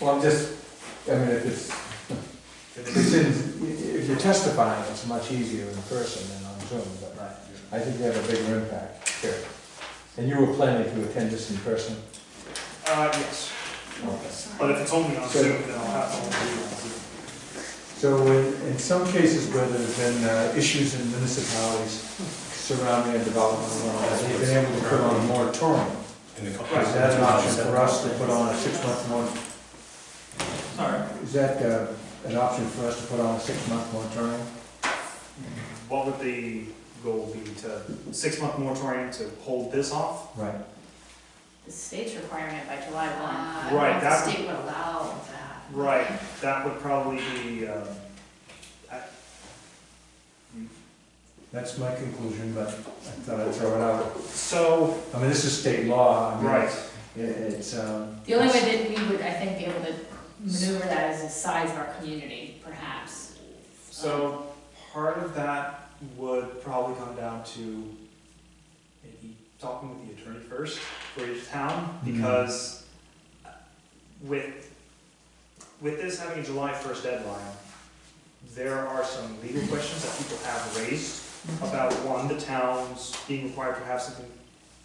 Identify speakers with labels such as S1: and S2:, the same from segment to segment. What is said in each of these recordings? S1: Well, I'm just, I mean, if it's, if it's in, if you're testifying, it's much easier in person than on Zoom, but I think you have a bigger impact here. And you were planning to attend this in person?
S2: Uh, yes, but if it's only on Zoom, then I'll have to only do it on Zoom.
S1: So in, in some cases where there's been uh, issues in municipalities surrounding a development, uh, they've been able to put on a moratorium.
S3: In the couple-
S1: Is that an option for us to put on a six-month mor,
S2: Sorry.
S1: is that, uh, an option for us to put on a six-month moratorium?
S2: What would the goal be to, six-month moratorium to hold this off?
S1: Right.
S4: The state's requiring it by July
S5: Uh,
S4: one.
S5: I don't know
S2: Right,
S5: if the
S2: that-
S5: state would allow that.
S2: Right, that would probably be, um, I-
S1: That's my conclusion, but I thought I'd throw it out.
S2: so,
S1: I mean, this is state law. I mean,
S2: right,
S1: it- It's, um.
S4: The only way that we would, I think, be able to maneuver that is the size of our community, perhaps.
S5: Um,
S2: so part of that would probably come down to maybe talking with the attorney first for each town,
S1: Mhm.
S2: because with, with this having a July first deadline, there are some legal questions that people have raised about, one, the towns being required to have something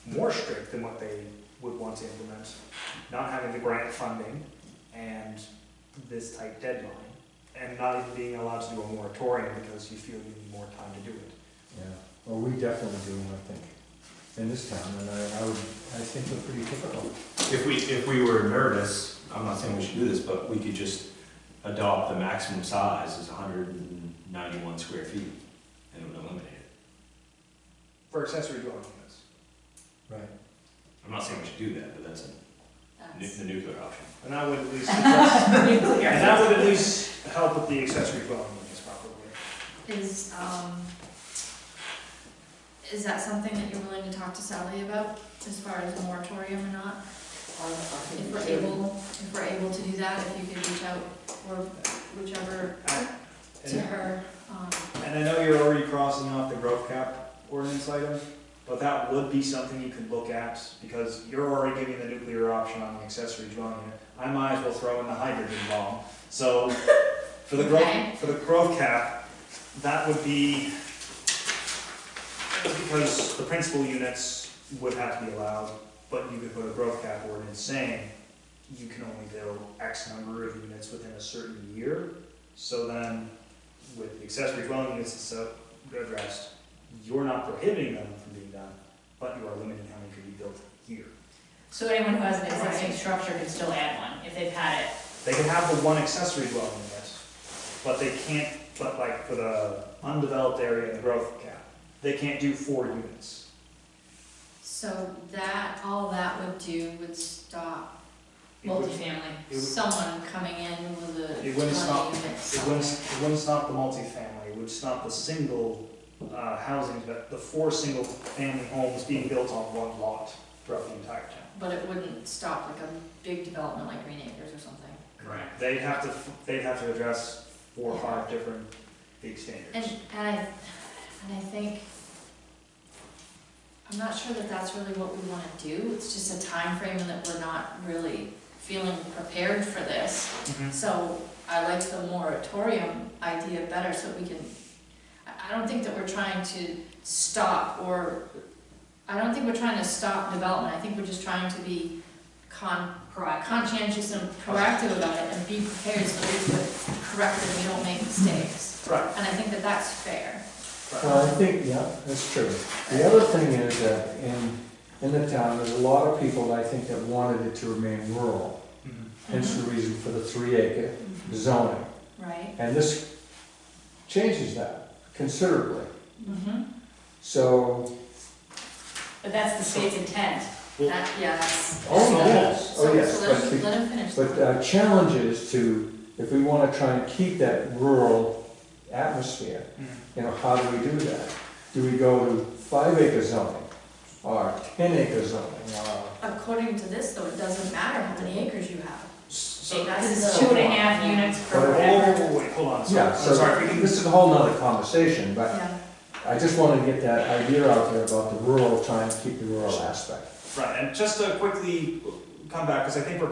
S2: more strict than what they would want to implement, not having the grant funding and this tight deadline, and not even being allowed to do a moratorium because you feel you need more time to do it.
S1: Yeah, well, we definitely do, I think, in this town, and I, I would, I think we're pretty typical.
S3: If we, if we were nervous, I'm not saying we should do this, but we could just adopt the maximum size is hundred and ninety-one square feet and it would eliminate it.
S2: For accessory dwelling units,
S1: Right.
S3: I'm not saying we should do that, but that's a nu-
S5: That's-
S3: the nuclear option.
S2: and that would at least, address-
S4: Nuclear.
S2: and that would at least help with the accessory dwelling units properly.
S5: Is, um, is that something that you're willing to talk to Sally about as far as moratorium or not? If we're able, if we're able to do that, if you could reach out or whichever to
S2: And-
S5: her, um,
S2: And I know you're already crossing off the growth cap ordinance item, but that would be something you could look at, because you're already giving the nuclear option on the accessory dwelling unit. I might as well throw in the hydrogen bomb, so, for the
S5: Okay.
S2: growth, for the growth cap, that would be, because the principal units would have to be allowed, but you could put a growth cap ordinance saying you can only build X number of units within a certain year, so then with the accessory dwelling units and stuff addressed, you're not prohibiting them from being done, but you are limiting how many could be built here.
S4: So anyone who has an existing
S5: Right.
S4: structure can still add one, if they've had it.
S2: They can have the one accessory dwelling unit, but they can't, but like for the undeveloped area and the growth cap, they can't do four units.
S5: so that, all that would do would stop
S2: It would-
S4: multifamily.
S2: It would-
S5: someone coming in with a twenty
S2: It wouldn't stop-
S5: unit
S2: It
S5: somewhere.
S2: wouldn't, it wouldn't stop the multifamily, it would stop the single, uh, housing, but the four single-family homes being built on one lot throughout the entire town.
S5: But it wouldn't stop like a big development like Green Acres or something.
S2: Right. They'd have to, they'd have to address four or five different big
S5: And,
S2: standards.
S5: and I, and I think, I'm not sure that that's really what we wanna do, it's just a time frame that we're not really feeling prepared for this.
S1: Mm-hmm.
S5: So I like the moratorium idea better, so we can, I, I don't think that we're trying to stop or, I don't think we're trying to stop development, I think we're just trying to be con, conscientious and proactive about it and be prepared so that we do it correctly, and we don't make mistakes.
S2: Right,
S5: And I think that that's fair.
S1: Well, I think, yeah, that's true. The other thing is that in, in the town, there's a lot of people, I think, that wanted it to remain rural. Hence the reason for the three acre zoning.
S5: Right?
S1: And this changes that considerably.
S4: Mm-hmm.
S1: So,
S4: But that's the state's intent.
S5: That, yes.
S1: oh,
S5: So-
S1: yes,
S5: so-
S1: oh,
S5: so
S1: yes.
S5: let
S1: but
S5: him-
S1: the-
S5: Let him finish.
S1: But uh, challenge is to, if we want to try and keep that rural atmosphere, you know, how do we do that? Do we go to five acre zoning or ten acre zoning or?
S5: According to this, though, it doesn't matter how many acres you have.
S2: So,
S5: That's
S4: Because it's
S5: the-
S4: two and a half units
S2: whoa,
S4: per
S1: But-
S2: whoa,
S4: whatever.
S2: whoa, wait, hold on, sorry,
S1: Yeah,
S2: I'm
S1: so
S2: sorry, we can,
S1: this is a whole nother conversation, but
S5: Yeah.
S1: I just wanted to get that idea out there about the rural, trying to keep the rural aspect.
S2: right, and just to quickly come back, because I think we're